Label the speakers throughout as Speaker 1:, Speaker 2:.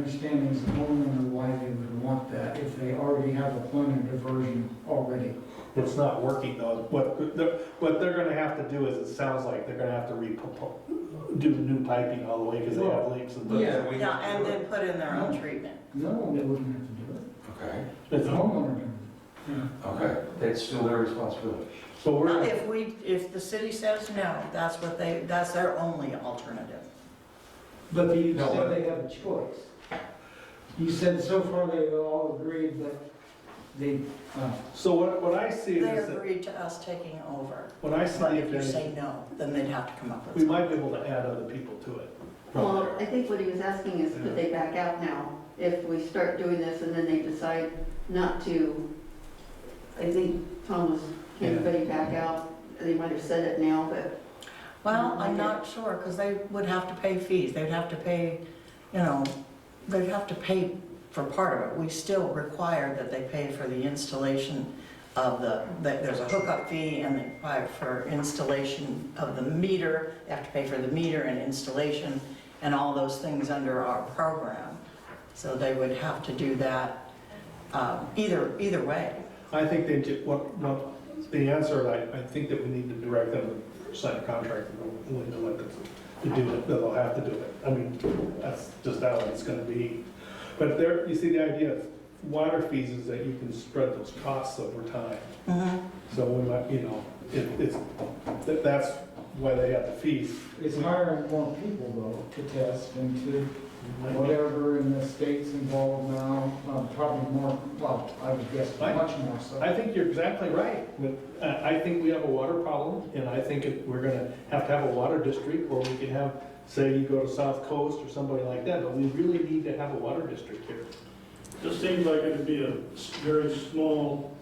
Speaker 1: understanding as the homeowner why they would want that if they already have a plan of diversion already.
Speaker 2: It's not working though. What they're, what they're gonna have to do is, it sounds like they're gonna have to re, do new piping all the way because they have leaks and.
Speaker 3: But
Speaker 1: Yeah.
Speaker 3: then we have
Speaker 4: Yeah,
Speaker 3: to
Speaker 4: and
Speaker 3: do it.
Speaker 4: then put in their own treatment.
Speaker 1: No, they wouldn't have to do it.
Speaker 3: Okay,
Speaker 1: The
Speaker 2: It's-
Speaker 1: homeowner can. Yeah.
Speaker 3: okay, that's still their responsibility.
Speaker 2: So we're,
Speaker 4: If we, if the city says no, that's what they, that's their only alternative.
Speaker 1: But you
Speaker 3: No,
Speaker 1: said
Speaker 3: but-
Speaker 1: they have a choice. You said so far they all agreed that they, uh,
Speaker 2: so what, what I see
Speaker 4: They
Speaker 2: is that,
Speaker 4: agreed to us taking over,
Speaker 2: what I
Speaker 4: but
Speaker 2: see
Speaker 4: if you
Speaker 2: is,
Speaker 4: say no, then they'd have to come up with
Speaker 2: we
Speaker 4: something.
Speaker 2: might be able to add other people to it from
Speaker 5: Well,
Speaker 2: there.
Speaker 5: I think what he was asking is, could they back out now? If we start doing this and then they decide not to, I think Tom was, can anybody back out? They might have said it now, but
Speaker 4: Well, I'm not sure, because they would have to pay fees, they'd have to pay, you know, they'd have to pay for part of it. We still require that they pay for the installation of the, that there's a hookup fee and they pay for installation of the meter, they have to pay for the meter and installation and all those things under our program. So they would have to do that, um, either, either way.
Speaker 2: I think they, ju- what, what, the answer, I, I think that we need to direct them to sign a contract and we're willing to let them to do it, that they'll have to do it. I mean, that's just how it's gonna be. But there, you see, the idea of water fees is that you can spread those costs over time.
Speaker 4: Mhm.
Speaker 2: So we might, you know, it, it's, that, that's why they have the fees.
Speaker 1: it's hiring more people though to test and to whatever, and the state's involved now, um, probably more, well, I would guess much more so.
Speaker 2: I think you're exactly right. With- I I think we have a water problem, and I think if we're gonna have to have a water district, or we can have, say, you go to South Coast or somebody like that, but we really need to have a water district here.
Speaker 6: This seems like it'd be a s- very small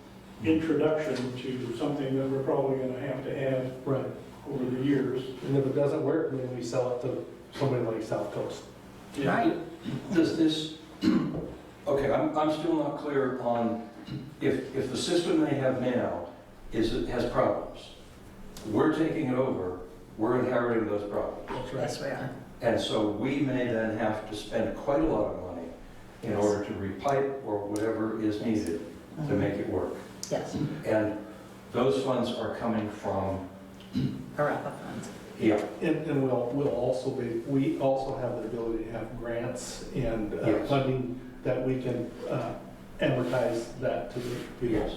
Speaker 6: introduction to something that we're probably gonna have to add
Speaker 2: Right.
Speaker 6: over the years.
Speaker 2: And if it doesn't work, then we sell it to somebody like South Coast.
Speaker 4: Right.
Speaker 3: Does this, okay, I'm, I'm still not clear on if, if the system they have now is, has problems. We're taking it over, we're inheriting those problems.
Speaker 2: That's
Speaker 4: Yes, we are.
Speaker 3: And so we may then have to spend quite a lot of money in
Speaker 4: Yes.
Speaker 3: order to repipe or whatever is needed to
Speaker 4: Mhm.
Speaker 3: make it work.
Speaker 4: Yes,
Speaker 3: And those funds are coming from,
Speaker 4: ARPA funds.
Speaker 3: yeah,
Speaker 2: And, and we'll, we'll also be, we also have the ability to have grants and uh,
Speaker 3: Yes.
Speaker 2: funding that we can uh, advertise that to the people.
Speaker 3: yes.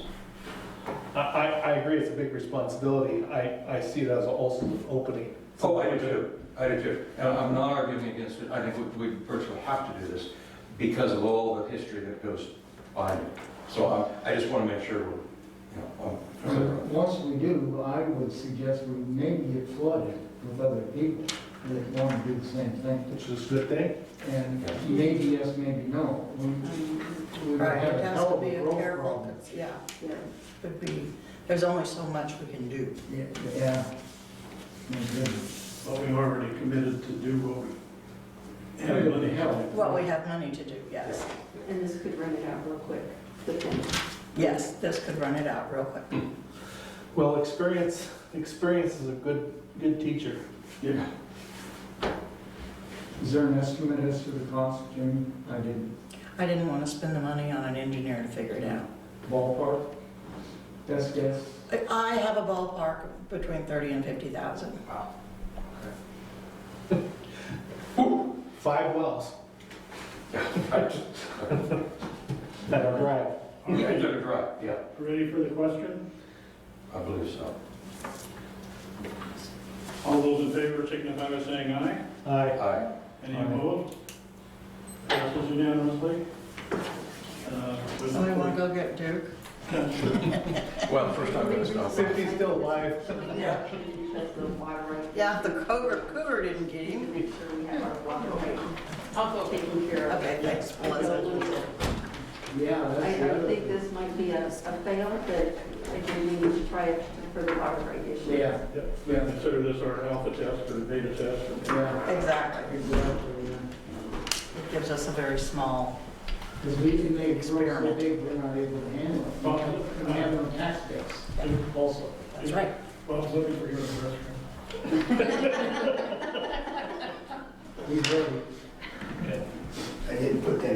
Speaker 2: I, I, I agree, it's a big responsibility. I, I see it as also an opening.
Speaker 3: Oh, I do too, I do too. And I'm not arguing against it, I think we we virtually have to do this because of all the history that goes behind it. So um, I, I just want to make sure, we're, you know, I'm clear on
Speaker 1: Once we do, I would suggest we maybe get flooded with other people that want to do the same thing.
Speaker 2: Which is a good thing.
Speaker 1: And maybe yes, maybe no. We we
Speaker 4: Right,
Speaker 1: have
Speaker 4: it
Speaker 1: a
Speaker 4: has
Speaker 1: hell
Speaker 4: to
Speaker 1: of
Speaker 4: be
Speaker 1: a
Speaker 4: a
Speaker 1: growth
Speaker 4: careful,
Speaker 1: problem.
Speaker 4: yeah,
Speaker 5: yeah.
Speaker 4: could be, there's only so much we can do.
Speaker 1: Yeah, Yeah. Yeah.
Speaker 6: But we've already committed to do what we have money for.
Speaker 4: Well, we have money to do, yes.
Speaker 5: And this could run it out real quick, the thing.
Speaker 4: Yes, this could run it out real quick.
Speaker 2: Well, experience, experience is a good, good teacher.
Speaker 6: Yeah.
Speaker 1: Is there an estimate as to the cost, Jim? I didn't
Speaker 4: I didn't want to spend the money on an engineer to figure it out.
Speaker 1: ballpark. Best guess?
Speaker 4: I- I have a ballpark between 30 and 50,000.
Speaker 2: Five wells
Speaker 3: that.
Speaker 2: that are dry.
Speaker 3: Yeah, I took a drive, yeah,
Speaker 6: Ready for the question?
Speaker 3: I believe so.
Speaker 6: All those in favor signify by saying aye.
Speaker 2: I,
Speaker 3: Aye.
Speaker 6: Any
Speaker 2: Aye.
Speaker 6: opposed? Passes unanimously. Uh, with-
Speaker 4: Somebody want to go get Duke?
Speaker 3: Well, first I'm going to stop.
Speaker 2: Cindy's still alive.
Speaker 4: Yeah. Yeah, the cougar, cougar didn't get him.
Speaker 5: Make sure we have our water rate also taken care of.
Speaker 4: Okay, thanks,
Speaker 5: I don't lose
Speaker 4: Melissa.
Speaker 5: it.
Speaker 1: Yeah,
Speaker 5: I
Speaker 1: that's the
Speaker 5: I
Speaker 1: other
Speaker 5: think
Speaker 1: thing.
Speaker 5: this might be a a fail, but I do need to try it for the water rate issue.
Speaker 1: Yeah, yeah,
Speaker 6: Consider this our alpha test or beta test. or-
Speaker 1: yeah.
Speaker 4: Exactly.
Speaker 1: Exactly, yeah.
Speaker 4: It gives us a very small,
Speaker 1: Because we can make it grow so big, we're not able to handle it. We
Speaker 6: Well,
Speaker 1: have- We have no tax base also.
Speaker 4: that's right.
Speaker 6: Bob's looking for your restroom.
Speaker 1: We've already
Speaker 7: I didn't put that